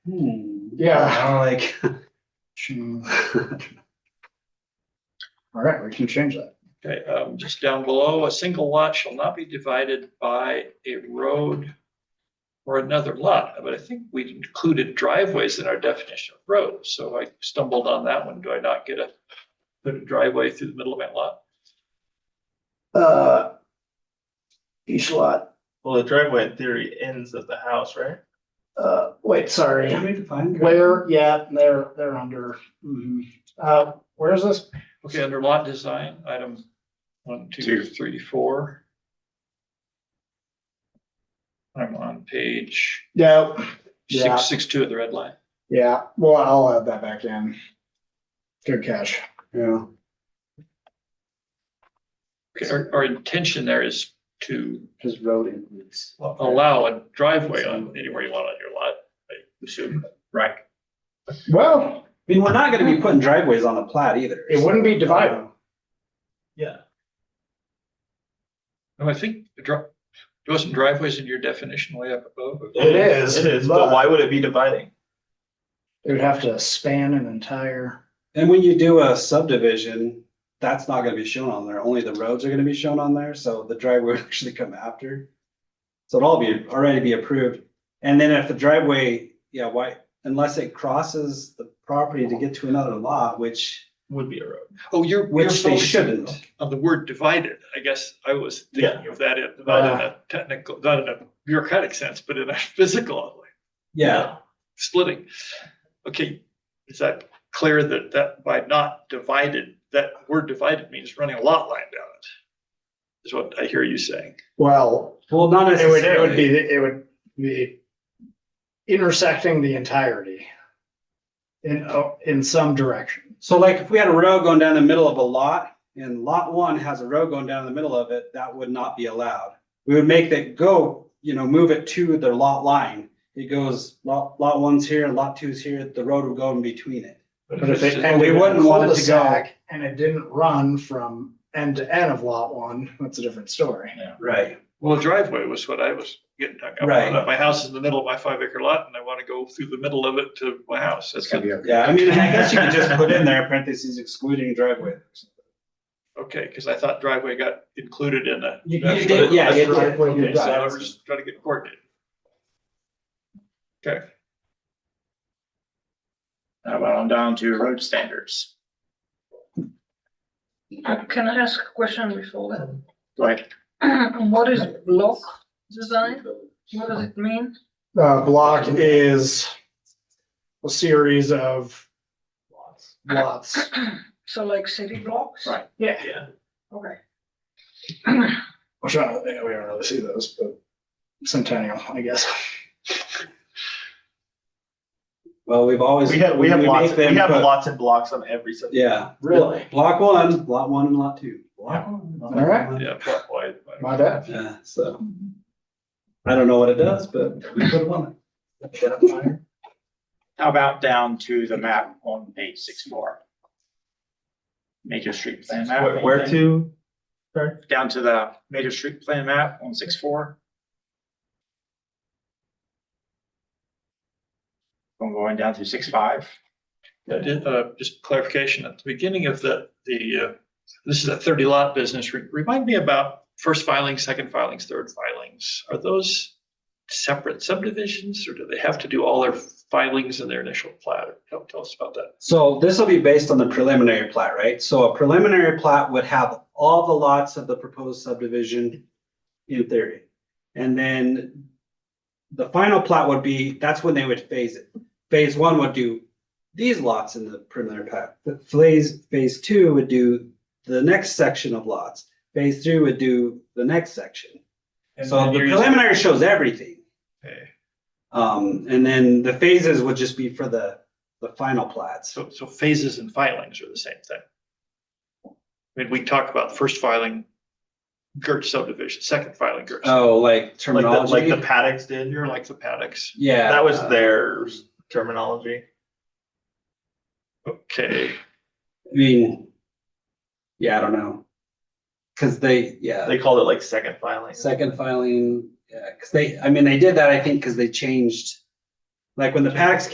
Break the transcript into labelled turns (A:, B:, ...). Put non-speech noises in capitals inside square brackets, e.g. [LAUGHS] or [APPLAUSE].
A: Hmm, [LAUGHS]
B: Yeah.
A: I'm like,
B: Change. All right, we can change that.
C: Okay, um, just down below, a single lot shall not be divided by a road or another lot, but I think we included driveways in our definition of road, so I stumbled on that one. Do I not get a put a driveway through the middle of my lot?
B: Uh, each lot,
D: Well, the driveway in theory ends at the house, right?
B: uh, wait, sorry,
A: can we define?
B: where, yeah, they're, they're under,
A: Mhm.
B: uh, where's this?
C: Okay, under lot design, item one, two,
A: Two.
C: three, four. I'm on page
B: Yeah, Yeah.
C: six, six, two of the red line.
B: yeah, well, I'll add that back in. Good catch.
A: Yeah,
C: Okay, Our, our intention there is to
A: just road includes.
C: allow a driveway on anywhere you want on your lot, I assume.
A: Right.
B: Well,
A: I mean, we're not gonna be putting driveways on the plat either.
B: it wouldn't be divided.
D: Yeah.
C: No, I think the dri- there wasn't driveways in your definition way up above. [LAUGHS]
B: It is,
D: It is, but
B: but-
D: why would it be dividing?
B: It would have to span an entire,
A: And when you do a subdivision, that's not gonna be shown on there, only the roads are gonna be shown on there, so the driveway [LAUGHS] would actually come after. So it'll all be, already be approved, and then if the driveway, yeah, why, unless it crosses the property to get to another lot, which,
D: Would be a road.
C: Oh, you're. you're
A: which they
C: focusing
A: shouldn't.
C: On the word divided, I guess I was thinking of that, in- not in
A: Ah.
C: a technical, not in a bureaucratic sense, but in a [LAUGHS] physical, like,
A: Yeah,
C: splitting. Okay, is that clear that, that by not divided, that word divided means running a lot line down it? Is what I hear you saying.
B: well,
A: well, not
B: it would, it
A: necessarily,
B: would be, it would be intersecting the entirety in, uh, in some direction.
A: so like if we had a road going down the middle of a lot, and lot one has a road going down the middle of it, that would not be allowed. We would make that go, you know, move it to their lot line, it goes lot, lot one's here, lot two's here, the road would go in between it.
B: But if it
C: Just-
A: and we
B: ended in a
A: wouldn't want it to go-
B: cul-de-sac and it didn't run from end to end of lot one, that's a different story.
A: Right.
C: Well, a driveway was what I was getting hung up on.
A: Right.
C: My house is in the middle of my five acre lot and I want to go through the middle of it to my house. That's it.
A: Yeah, I mean, I guess you could just put in there parentheses excluding driveway.
C: Okay, because I thought driveway got included in that.
A: You- you
C: That's
A: did,
C: right.
A: yeah,
C: That's
A: you did.
C: right.
B: You
C: Okay,
B: did.
C: so I was just trying to get coordinated. Okay.
E: How about on down to road standards?
F: Uh, Can I ask a question before that?
E: Go ahead.
F: What is block design? What does it mean?
B: Uh, block is a series of lots.
F: So like city blocks?
E: Right.
B: [LAUGHS] Yeah.
D: Yeah.
F: Okay.
B: Which I don't think we don't really see those, but Centennial, I guess.
A: Well, we've always.
D: We have, we have lots,
A: make
D: we
A: them
D: have
A: put-
D: lots and blocks on every subdivision.
A: Yeah.
B: Really?
A: Block one, lot one and lot two. Block one. lot
B: All right.
A: one.
C: Yeah. block wide, wide.
B: My bad.
A: Yeah, so. I don't know what it does, but we put one.
E: How about down to the map on page six four? Major street plan map.
D: Where, where to?
E: Down to the major street plan map on six four. I'm going down to six five.
C: I did, uh, just clarification at the beginning of the, the, uh, this is a thirty lot business. Re- Remind me about first filings, second filings, third filings. Are those separate subdivisions or do they have to do all their filings in their initial plat? Tell, tell us about that.
A: So this will be based on the preliminary plat, right? So a preliminary plat would have all the lots of the proposed subdivision in theory. And then the final plat would be, that's when they would phase it. Phase one would do these lots in the preliminary plat. But Phase, phase two would do the next section of lots. Phase three would do the next section. So the preliminary shows everything.
C: Okay.
A: Um, and then the phases would just be for the, the final plats.
C: So, so phases and filings are the same thing. I mean, we talk about first filing Gertz subdivision, second filing Gertz.
A: Oh, like
D: Like the, like
A: terminology?
D: the paddocks did,
C: You're like the paddocks.
A: Yeah.
D: that was
A: uh,
D: their terminology.
C: Okay,
A: I mean, yeah, I don't know. Cause they, yeah,
D: They called it like second filing.
A: second filing, yeah, cause they, I mean, they did that, I think, cause they changed. Like when the paddocks